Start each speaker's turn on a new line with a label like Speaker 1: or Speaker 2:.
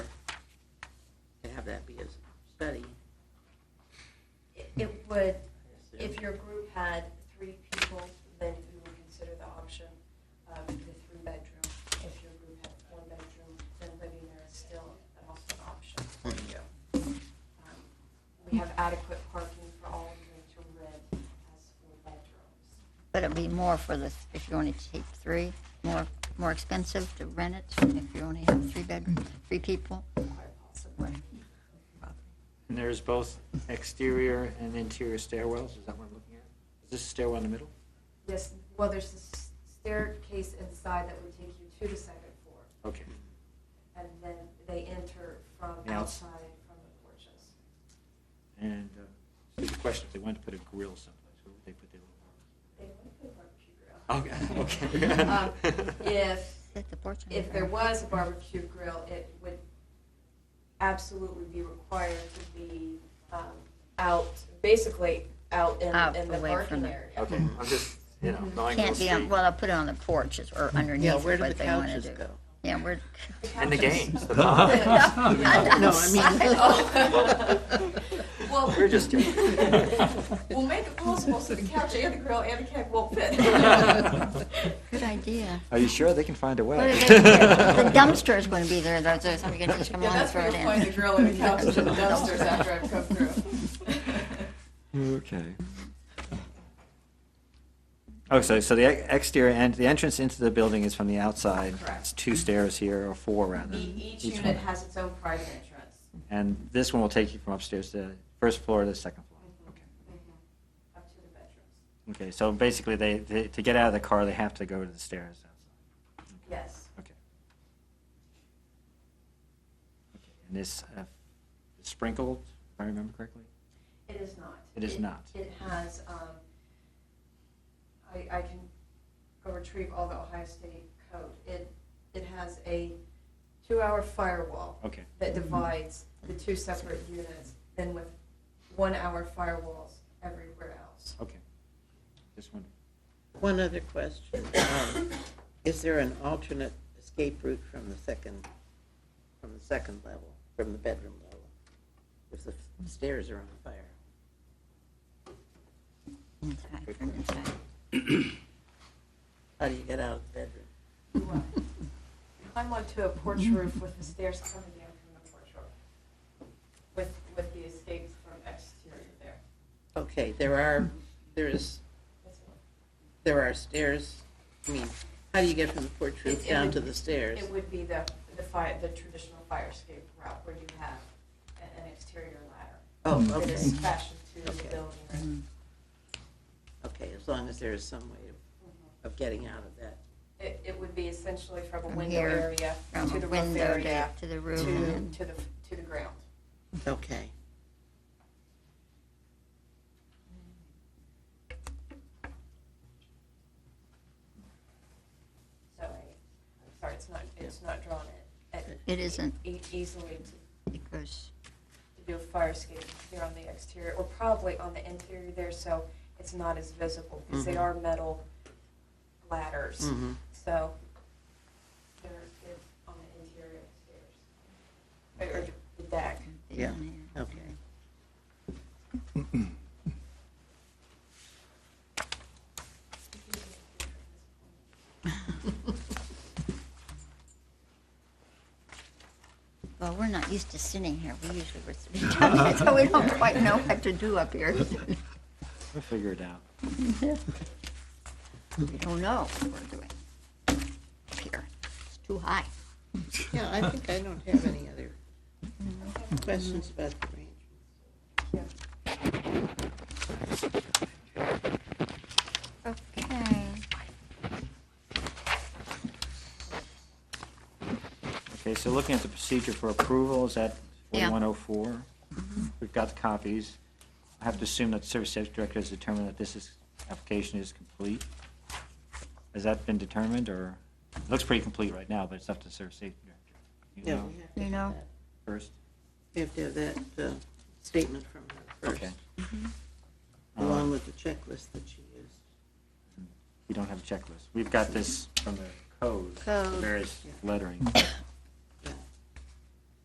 Speaker 1: have that be a study.
Speaker 2: It would, if your group had three people, then you would consider the option of the three-bedroom. If your group had one bedroom, then living there is still also an option for you. Um, We have adequate parking for all of you to live as full bedrooms.
Speaker 3: But it'd be more for the, if you only take three, more, more expensive to rent it if you only have three bedrooms, three people?
Speaker 2: quite possibly.
Speaker 4: And there's both exterior and interior stairwells, is that what I'm looking at? Is this stairwell in the middle?
Speaker 2: Yes, well, there's a s- staircase inside that would take you to the second floor,
Speaker 4: Okay.
Speaker 2: and then they enter from
Speaker 4: Yeah.
Speaker 2: outside from the porches.
Speaker 4: And uh, stupid question, if they wanted to put a grill someplace, where would they put their little
Speaker 2: They would put a barbecue grill.
Speaker 4: grill? Okay,
Speaker 2: Um,
Speaker 4: okay.
Speaker 2: If,
Speaker 3: Set the porch on
Speaker 2: if there
Speaker 3: fire.
Speaker 2: was a barbecue grill, it would absolutely be required to be um, out, basically out in,
Speaker 3: Out,
Speaker 2: in the
Speaker 3: away
Speaker 2: parking
Speaker 3: from the-
Speaker 2: area.
Speaker 4: Okay, I'm just, you know, knowing Wall
Speaker 3: Can't be on,
Speaker 4: Street
Speaker 3: well, I'll put it on the porch is- or underneath
Speaker 1: Yeah,
Speaker 3: is
Speaker 1: where
Speaker 3: what
Speaker 1: do the
Speaker 3: they want to
Speaker 1: couches
Speaker 3: do.
Speaker 1: go?
Speaker 3: Yeah, where,
Speaker 4: and the games, the
Speaker 2: Yeah.
Speaker 4: bars.
Speaker 1: No, I mean.
Speaker 2: Oh. Well,
Speaker 4: We're just joking.
Speaker 2: We'll make it possible so the couch and the grill and the keg won't fit.
Speaker 3: good idea.
Speaker 4: Are you sure they can find a way?
Speaker 3: What are they gonna do? The dumpster is going to be there, though, so somebody can just come
Speaker 2: Yeah,
Speaker 3: along and
Speaker 2: that's
Speaker 3: throw
Speaker 2: where
Speaker 3: it
Speaker 2: you'll
Speaker 3: in.
Speaker 2: find the grill and the couch and the dumpsters after I've come through.
Speaker 4: Okay. Oh, so, so the ex- exterior and the entrance into the building is from the outside.
Speaker 2: Correct.
Speaker 4: It's two stairs here, or four rather.
Speaker 2: E- Each
Speaker 4: one.
Speaker 2: unit has its own private entrance.
Speaker 4: And this one will take you from upstairs to the first floor to the second floor. Okay.
Speaker 2: Mhm. Up to the bedrooms.
Speaker 4: Okay, so basically they, they, to get out of the car, they have to go to the stairs outside.
Speaker 2: Yes.
Speaker 4: Okay. Okay. And this uh, is sprinkled, if I remember correctly?
Speaker 2: It is not.
Speaker 4: It is not.
Speaker 2: It has, um, I, I can go retrieve all the Ohio State code. It, it has a two-hour firewall.
Speaker 4: Okay.
Speaker 2: That divides the two separate units, then with one-hour firewalls everywhere else.
Speaker 4: Okay. Just wondering.
Speaker 1: One other question. Um, Is there an alternate escape route from the second, from the second level, from the bedroom level? If the stairs are on fire?
Speaker 3: Inside, from inside.
Speaker 1: How do you get out of the bedroom?
Speaker 2: Climb onto a porch roof with the stairs coming down from the porch roof, with, with the escapes from exterior there.
Speaker 1: Okay, there are, there is,
Speaker 2: That's all.
Speaker 1: there are stairs, I mean, how do you get from the porch
Speaker 2: It-
Speaker 1: roof
Speaker 2: it
Speaker 1: down
Speaker 2: would-
Speaker 1: to the stairs?
Speaker 2: It would be the, the fire, the traditional fire escape route where you have a- an exterior ladder
Speaker 1: Oh,
Speaker 2: that
Speaker 1: okay,
Speaker 2: is fashioned to the
Speaker 1: Okay.
Speaker 2: building. or-
Speaker 3: Mm-hmm.
Speaker 1: okay, as long as there is some way of getting out of that.
Speaker 2: It, it would be essentially from a
Speaker 3: From
Speaker 2: window
Speaker 3: here,
Speaker 2: area
Speaker 3: From
Speaker 2: to
Speaker 3: a
Speaker 2: the roof
Speaker 3: window
Speaker 2: area
Speaker 3: to, to the
Speaker 2: to,
Speaker 3: roof Mm-hmm. and then,
Speaker 2: to the, to the ground.
Speaker 1: Okay.
Speaker 2: So, I- I'm sorry, it's not, it's not drawn in. at-
Speaker 3: it isn't,
Speaker 2: e- Easily to
Speaker 3: it goes,
Speaker 2: to do a fire escape here on the exterior, or probably on the interior there, so it's not as visible, because they
Speaker 1: Mhm.
Speaker 2: are metal ladders,
Speaker 1: Mhm.
Speaker 2: so they're, they're on the interior of the stairs, or the deck.
Speaker 3: they
Speaker 1: Yeah.
Speaker 3: don't have-
Speaker 1: Okay.
Speaker 3: Well, we're not used to sitting here. We usually were three times, so we don't quite know what to do up here.
Speaker 4: We'll figure it out.
Speaker 3: We don't know what we're doing up here. It's too high.
Speaker 1: Yeah, I think I don't have any other questions about the range.
Speaker 3: Okay.
Speaker 4: Okay, so looking at the procedure for approval, is that
Speaker 3: Yeah. Mm-hmm.
Speaker 4: 4104? We've got the copies. I have to assume that the Service Safety Director has determined that this is, application is complete. Has that been determined, or, it looks pretty complete right now, but it's up to the Service Safety Director. You
Speaker 1: Yeah,
Speaker 4: know
Speaker 1: we have to
Speaker 3: You
Speaker 1: have
Speaker 3: know,
Speaker 1: that.
Speaker 4: First?
Speaker 1: We have to have that uh, statement from her
Speaker 4: Okay.
Speaker 1: first,
Speaker 3: Mm-hmm.
Speaker 1: along
Speaker 4: Um,
Speaker 1: with the checklist that she used.
Speaker 4: We don't have a checklist. We've got this from the code,
Speaker 3: Code.
Speaker 4: various
Speaker 1: Yeah.
Speaker 4: lettering.